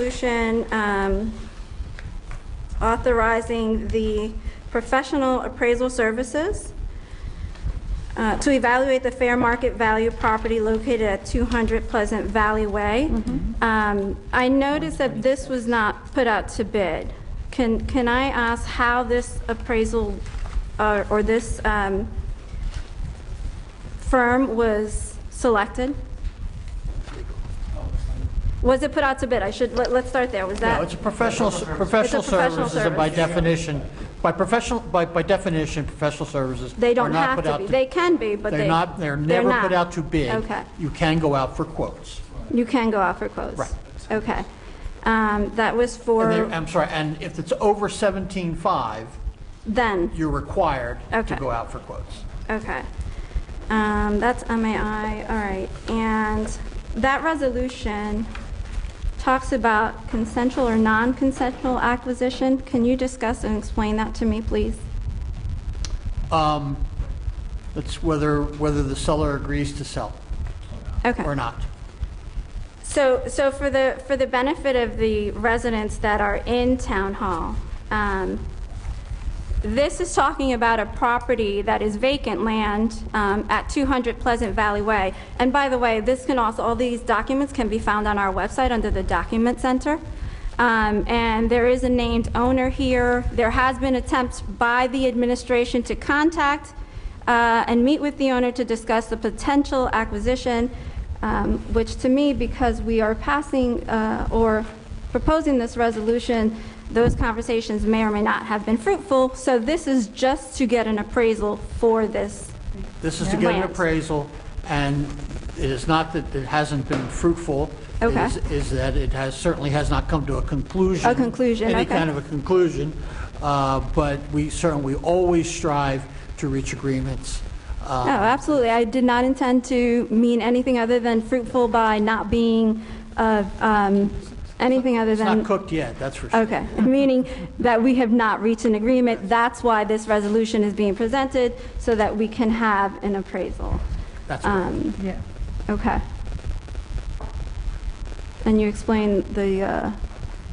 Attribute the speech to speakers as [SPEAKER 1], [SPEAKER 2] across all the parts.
[SPEAKER 1] Resolution um, authorizing the professional appraisal services uh, to evaluate the fair market value property located at 200 Pleasant Valley Way. Um, I noticed that this was not put out to bid. Can, can I ask how this appraisal uh, or this um, firm was selected? Was it put out to bid? I should, let- let's start there. Was that?
[SPEAKER 2] No, it's a professional,
[SPEAKER 1] It's
[SPEAKER 2] professional
[SPEAKER 1] a professional
[SPEAKER 2] services, and by
[SPEAKER 1] service.
[SPEAKER 2] definition, by professional, by, by definition, professional services
[SPEAKER 1] They
[SPEAKER 2] are
[SPEAKER 1] don't
[SPEAKER 2] not
[SPEAKER 1] have
[SPEAKER 2] put
[SPEAKER 1] to
[SPEAKER 2] out
[SPEAKER 1] be. They can be, but they...
[SPEAKER 2] They're not, they're never
[SPEAKER 1] not.
[SPEAKER 2] put out to bid.
[SPEAKER 1] Okay.
[SPEAKER 2] You can go out for quotes.
[SPEAKER 1] You can go out for quotes.
[SPEAKER 2] Right.
[SPEAKER 1] Okay. Um, That was
[SPEAKER 2] And
[SPEAKER 1] for
[SPEAKER 2] they- I'm sorry, and if it's over 17.5,
[SPEAKER 1] then.
[SPEAKER 2] you're required
[SPEAKER 1] Okay.
[SPEAKER 2] to go out for quotes.
[SPEAKER 1] Okay. Um, That's MAI, all right. And that resolution talks about consensual or non-consensual acquisition. Can you discuss and explain that to me, please?
[SPEAKER 2] Um, That's whether, whether the seller agrees to sell
[SPEAKER 1] Okay.
[SPEAKER 2] or not.
[SPEAKER 1] So, so for the, for the benefit of the residents that are in Town Hall, um, this is talking about a property that is vacant land um, at 200 Pleasant Valley Way. And by the way, this can also, all these documents can be found on our website under the Document Center. Um, And there is a named owner here. There has been attempts by the administration to contact uh, and meet with the owner to discuss the potential acquisition, um, which to me, because we are passing uh, or proposing this resolution, those conversations may or may not have been fruitful. So this is just to get an appraisal for this.
[SPEAKER 2] This is to get an
[SPEAKER 1] Land.
[SPEAKER 2] appraisal, and it is not that it hasn't been fruitful. It
[SPEAKER 1] Okay.
[SPEAKER 2] is- Is that it has, certainly has not come to a conclusion.
[SPEAKER 1] A conclusion,
[SPEAKER 2] Any
[SPEAKER 1] okay.
[SPEAKER 2] kind of a conclusion, uh, but we certainly, we always strive to reach agreements. Uh,
[SPEAKER 1] No, absolutely. I did not intend to mean anything other than fruitful by not being uh, um, anything other
[SPEAKER 2] It's not
[SPEAKER 1] than.
[SPEAKER 2] cooked yet, that's for sure.
[SPEAKER 1] Okay, meaning that we have not reached an agreement. That's why this resolution is being presented, so that we can have an appraisal.
[SPEAKER 2] That's correct.
[SPEAKER 1] Um,
[SPEAKER 3] Yeah.
[SPEAKER 1] Okay. And you explained the uh,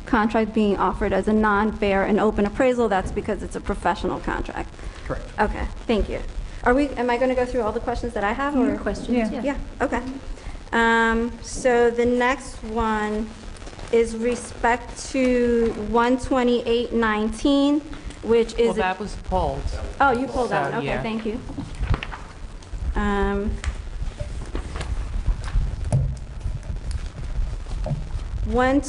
[SPEAKER 1] contract being offered as a non-fair and open appraisal, that's because it's a professional contract.
[SPEAKER 2] Correct.
[SPEAKER 1] Okay, thank you. Are we, am I going to go through all the questions that I have? or-
[SPEAKER 3] Yeah.
[SPEAKER 1] Yeah, okay. Um, So the next one is respect to 12819, which
[SPEAKER 3] Well,
[SPEAKER 1] is... a-
[SPEAKER 3] that was pulled.
[SPEAKER 1] Oh, you pulled out,
[SPEAKER 3] So,
[SPEAKER 1] okay,
[SPEAKER 3] yeah.
[SPEAKER 1] thank you. Um,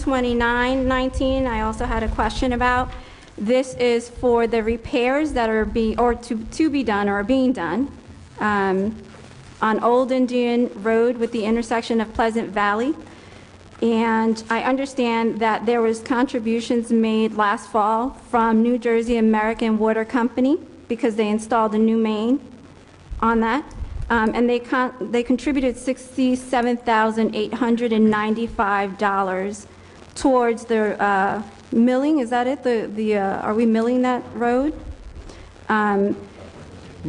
[SPEAKER 1] 12919, I also had a question about. This is for the repairs that are being, or to to be done or are being done um, on Old Indian Road with the intersection of Pleasant Valley. And I understand that there was contributions made last fall from New Jersey American Water Company because they installed a new main on that. Um, And they con- they contributed $67,895 towards the uh, milling, is that it? The, the uh, are we milling that road? Um,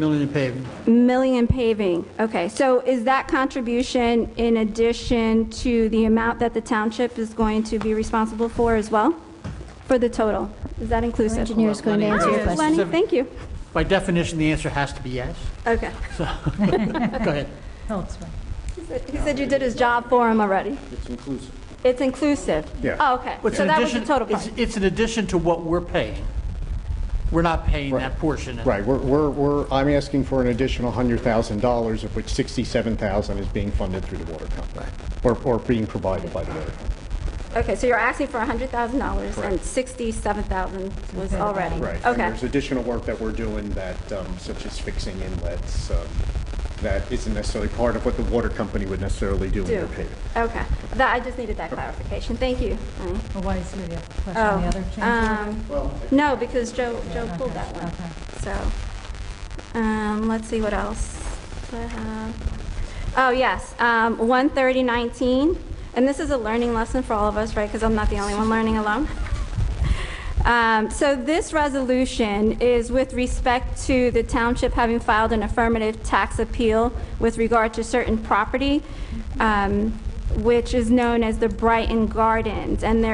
[SPEAKER 2] Million and paving.
[SPEAKER 1] Milling and paving, okay. So is that contribution in addition to the amount that the township is going to be responsible for as well? For the total? Is that inclusive?
[SPEAKER 4] Engineer is going to answer your
[SPEAKER 1] Hi,
[SPEAKER 4] question.
[SPEAKER 1] Lenny, thank you.
[SPEAKER 2] By definition, the answer has to be yes.
[SPEAKER 1] Okay.
[SPEAKER 2] Go ahead.
[SPEAKER 3] No, it's fine.
[SPEAKER 1] He said you did his job for him already.
[SPEAKER 5] It's inclusive.
[SPEAKER 1] It's inclusive?
[SPEAKER 5] Yeah.
[SPEAKER 1] Oh, okay.
[SPEAKER 2] It's
[SPEAKER 1] So
[SPEAKER 2] an
[SPEAKER 1] that was the
[SPEAKER 2] addition-
[SPEAKER 1] total
[SPEAKER 2] it's-
[SPEAKER 1] part.
[SPEAKER 2] It's in addition to what we're paying. We're not paying
[SPEAKER 5] Right.
[SPEAKER 2] that portion. and
[SPEAKER 5] Right, we're, we're, we're, I'm asking for an additional $100,000, of which 67,000 is being funded through the water company, or, or being provided by the water company.
[SPEAKER 1] Okay, so you're asking for $100,000 and
[SPEAKER 5] Correct.
[SPEAKER 1] 67,000 was already?
[SPEAKER 5] Right, and
[SPEAKER 1] Okay.
[SPEAKER 5] there's additional work that we're doing that, um, such as fixing inlets, um, that isn't necessarily part of what the water company would necessarily do in
[SPEAKER 1] Do.
[SPEAKER 5] their paving.
[SPEAKER 1] Okay. That, I just needed that clarification. Thank you. Lenny.
[SPEAKER 3] Well, why is there the other question, the
[SPEAKER 1] Oh,
[SPEAKER 3] other change?
[SPEAKER 1] um, No, because Joe, Joe pulled that one.
[SPEAKER 3] okay.
[SPEAKER 1] So, um, let's see what else do I have. Oh, yes, um, 13019, and this is a learning lesson for all of us, right? Because I'm not the only one learning alone. Um, So this resolution is with respect to the township having filed an affirmative tax appeal with regard to certain property. Um, which is known as the Brighton Gardens, and there